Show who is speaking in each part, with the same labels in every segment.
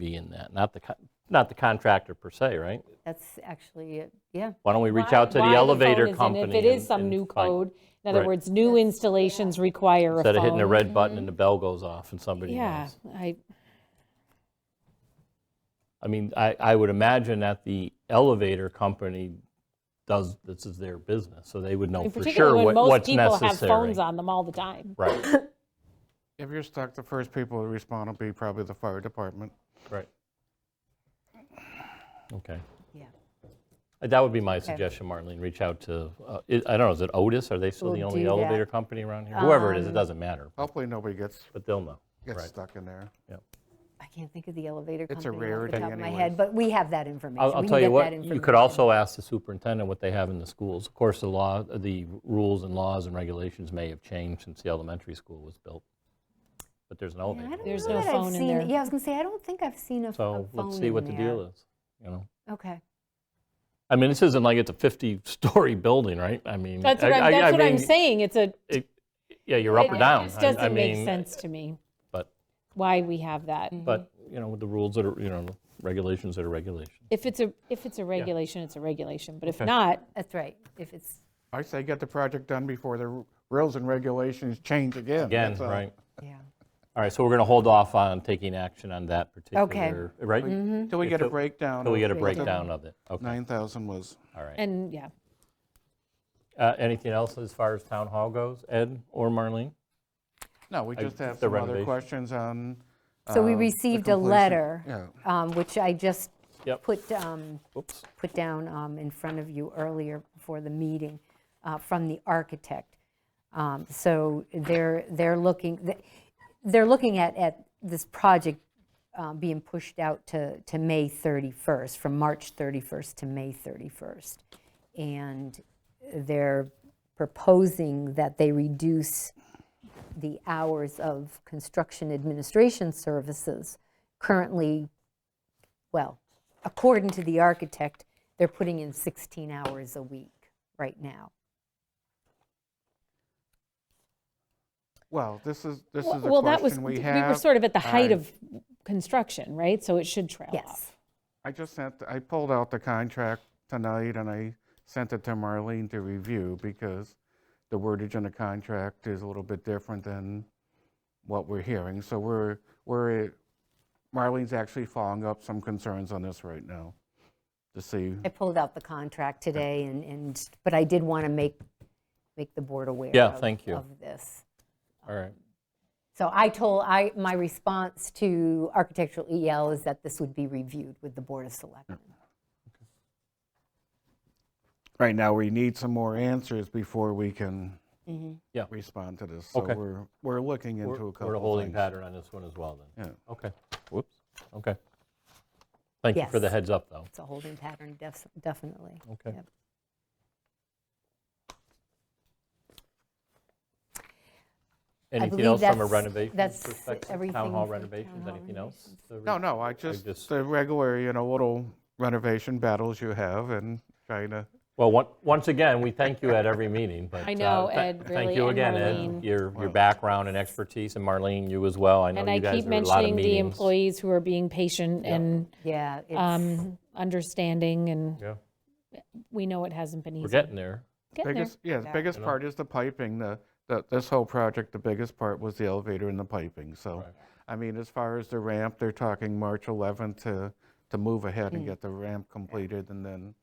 Speaker 1: be in that, not the, con- not the contractor per se, right?
Speaker 2: That's actually, it. yeah,
Speaker 1: Why don't we reach
Speaker 3: why-
Speaker 1: out to
Speaker 3: why
Speaker 1: the elevator
Speaker 3: phone is in,
Speaker 1: company?
Speaker 3: If it is
Speaker 1: and-
Speaker 3: some
Speaker 1: and
Speaker 3: new
Speaker 1: find-
Speaker 3: code, in other
Speaker 1: Right.
Speaker 3: words, new installations require a phone.
Speaker 1: Instead of hitting the red button and the bell goes off and somebody
Speaker 3: Yeah,
Speaker 1: knows.
Speaker 3: I,
Speaker 1: I mean, I, I would imagine that the elevator company does, this is their business, so they would know for sure
Speaker 3: particularly when
Speaker 1: what-
Speaker 3: most
Speaker 1: what's
Speaker 3: people
Speaker 1: necessary.
Speaker 3: have phones on them all the time.
Speaker 1: Right,
Speaker 4: If you're stuck, the first people to respond will be probably the fire department.
Speaker 1: right. Okay.
Speaker 2: yeah.
Speaker 1: Uh, That would be my suggestion, Marlene, reach out to, uh, I I don't know, is it Otis? Are they still the
Speaker 2: We'll
Speaker 1: only
Speaker 2: do that.
Speaker 1: elevator company around here? Whoever
Speaker 3: Um,
Speaker 1: it is, it doesn't matter,
Speaker 4: Hopefully, nobody gets,
Speaker 1: but they'll know.
Speaker 4: gets
Speaker 1: Right.
Speaker 4: stuck in there.
Speaker 2: I can't think of the elevator
Speaker 4: It's a
Speaker 2: company off
Speaker 4: rarity
Speaker 2: the top of my
Speaker 4: anyways.
Speaker 2: head, but we have that information.
Speaker 1: I'll, I'll
Speaker 2: We can
Speaker 1: tell you
Speaker 2: get
Speaker 1: what,
Speaker 2: that
Speaker 1: you could
Speaker 2: information.
Speaker 1: also ask the superintendent what they have in the schools. Of course, the law, the rules and laws and regulations may have changed since the elementary school was built, but there's an
Speaker 2: Yeah, I
Speaker 1: elevator.
Speaker 2: don't
Speaker 3: There's
Speaker 2: know
Speaker 3: no
Speaker 2: that I've
Speaker 3: phone in
Speaker 2: seen-
Speaker 3: there.
Speaker 2: Yeah, I was going to say, I don't think I've seen a a phone
Speaker 1: So let's see
Speaker 2: in
Speaker 1: what the deal
Speaker 2: there.
Speaker 1: is, you know?
Speaker 2: Okay.
Speaker 1: I mean, this isn't like it's a 50-story building, right? I mean.
Speaker 3: That's what
Speaker 1: I- I-
Speaker 3: I'm,
Speaker 1: I
Speaker 3: that's what I'm
Speaker 1: mean,
Speaker 3: saying, it's a,
Speaker 1: it- Yeah, you're up or down.
Speaker 3: it just
Speaker 1: I- I
Speaker 3: doesn't make
Speaker 1: mean,
Speaker 3: sense to me
Speaker 1: But,
Speaker 3: why we have that.
Speaker 1: but, you know, with the rules that are, you know, regulations that are regulations.
Speaker 3: If it's a, if it's a regulation, it's a regulation, but if
Speaker 1: Okay.
Speaker 3: not,
Speaker 2: That's right. If it's,
Speaker 4: I say get the project done before the r- rules and regulations change again.
Speaker 1: Again,
Speaker 4: that's all.
Speaker 1: right?
Speaker 2: yeah.
Speaker 1: All right, so we're going to hold off on taking action on that particular, right?
Speaker 4: Mm-hmm. Till we get a
Speaker 1: Till-
Speaker 4: breakdown.
Speaker 1: Until we get a
Speaker 4: of what the
Speaker 1: breakdown of it. Okay,
Speaker 4: 9,000 was.
Speaker 1: all right.
Speaker 3: and, yeah.
Speaker 1: Uh, Anything else as far as town hall goes, Ed or Marlene?
Speaker 4: No, we just have
Speaker 1: the
Speaker 4: some other
Speaker 1: renovation.
Speaker 4: questions on.
Speaker 2: So we
Speaker 4: um, the
Speaker 2: received a
Speaker 4: completion-
Speaker 2: letter,
Speaker 4: Yeah.
Speaker 2: um, which I just
Speaker 1: Yep.
Speaker 2: put, um,
Speaker 1: Oops.
Speaker 2: put down um, in front of you earlier before the meeting uh, from the architect. Um, So they're, they're looking, they're looking at, at this project um, being pushed out to, to May 31st, from March 31st to May 31st. And they're proposing that they reduce the hours of construction administration services. Currently, well, according to the architect, they're putting in 16 hours a week right now.
Speaker 4: Well, this is, this is a
Speaker 3: Well, that was,
Speaker 4: question
Speaker 3: we
Speaker 4: we
Speaker 3: were
Speaker 4: have.
Speaker 3: sort of at the height
Speaker 4: I-
Speaker 3: of construction, right? So it should trail
Speaker 2: Yes.
Speaker 3: off.
Speaker 4: I just sent, I pulled out the contract tonight and I sent it to Marlene to review because the wordage in the contract is a little bit different than what we're hearing. So we're, we're, Marlene's actually following up some concerns on this right now to see.
Speaker 2: I pulled out the contract today and, and, but I did want to make, make the board aware
Speaker 1: Yeah,
Speaker 2: of-
Speaker 1: thank you.
Speaker 2: of this.
Speaker 1: All right,
Speaker 2: So I told, I, my response to architectural EL is that this would be reviewed with the Board of Selectmen.
Speaker 4: Right now, we need some more answers before we can
Speaker 1: Yeah.
Speaker 4: respond to this. So
Speaker 1: Okay.
Speaker 4: we're, we're looking
Speaker 1: we're
Speaker 4: into a couple
Speaker 1: we're a holding
Speaker 4: things.
Speaker 1: pattern on this one as well, then.
Speaker 4: Yeah.
Speaker 1: Okay, whoops, okay. Thank you for the
Speaker 2: Yes.
Speaker 1: heads up, though.
Speaker 2: It's a holding pattern, def- definitely.
Speaker 1: Okay.
Speaker 2: Yep.
Speaker 1: Anything
Speaker 2: believe
Speaker 1: else from a
Speaker 2: that's-
Speaker 1: renovation
Speaker 2: that's
Speaker 1: perspective? Town
Speaker 2: everything
Speaker 1: hall
Speaker 2: for town
Speaker 1: renovations,
Speaker 2: hall
Speaker 1: anything else?
Speaker 4: No, no, I just,
Speaker 1: just-
Speaker 4: the regular, you know, little renovation battles you have and trying to
Speaker 1: Well, on- once again, we thank you at every meeting, but.
Speaker 3: I
Speaker 1: uh,
Speaker 3: know,
Speaker 1: tha-
Speaker 3: Ed,
Speaker 1: Thank
Speaker 3: really,
Speaker 1: you
Speaker 3: and
Speaker 1: again, Ed,
Speaker 3: Marlene.
Speaker 1: your, your background and expertise, and Marlene, you as well. I know
Speaker 3: And I
Speaker 1: you guys
Speaker 3: keep
Speaker 1: do a lot of
Speaker 3: mentioning the
Speaker 1: meetings.
Speaker 3: employees who are being patient
Speaker 1: Yeah.
Speaker 3: and
Speaker 2: Yeah, it's,
Speaker 3: um, understanding, and
Speaker 1: Yeah,
Speaker 3: we know it hasn't been
Speaker 1: We're
Speaker 3: easy.
Speaker 1: getting there.
Speaker 3: Getting there.
Speaker 4: Biggest, yeah, the biggest
Speaker 1: You know?
Speaker 4: part is the piping, the, the- this whole project, the biggest part was the elevator and the piping, so.
Speaker 1: Right.
Speaker 4: I mean, as far as the ramp, they're talking March 11th to, to move ahead and get the ramp completed and then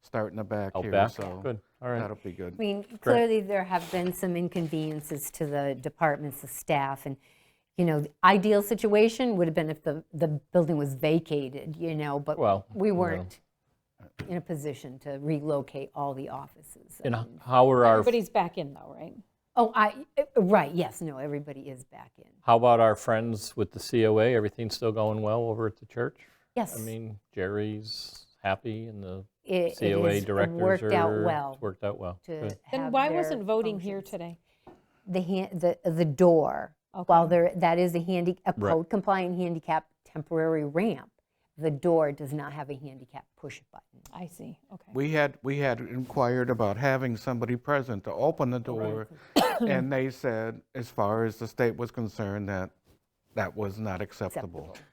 Speaker 4: start in the back
Speaker 1: Out
Speaker 4: here,
Speaker 1: Oh, back?
Speaker 4: so.
Speaker 1: Good, all right.
Speaker 4: That'll be good.
Speaker 2: I mean, clearly, there have been some inconveniences to the departments, the staff, and, you know, the ideal situation would have been if the, the building was vacated, you know, but
Speaker 1: Well,
Speaker 2: we
Speaker 1: you know.
Speaker 2: weren't in a position to relocate all the offices.
Speaker 1: And how are our,
Speaker 3: Everybody's back in though, right?
Speaker 2: Oh, I, eh, right, yes, no, everybody is back in.
Speaker 1: how about our friends with the COA? Everything's still going well over at the church?
Speaker 2: Yes.
Speaker 1: I mean, Jerry's happy and the
Speaker 2: it- it
Speaker 1: COA
Speaker 2: has
Speaker 1: directors are.
Speaker 2: Worked out
Speaker 1: it's
Speaker 2: well
Speaker 1: Worked out well.
Speaker 2: to
Speaker 1: Good.
Speaker 3: Then
Speaker 2: have
Speaker 3: why
Speaker 2: their
Speaker 3: wasn't voting here
Speaker 2: functions.
Speaker 3: today?
Speaker 2: The, han- the, the door, while there, that is a handy, a
Speaker 1: Right.
Speaker 2: code compliant handicap temporary ramp, the door does not have a handicap push button.
Speaker 3: I see, okay.
Speaker 4: We had, we had inquired about having somebody present to open
Speaker 1: Oh,
Speaker 4: the door, and they said, as far as the state was concerned, that that was not acceptable.
Speaker 2: Acceptable.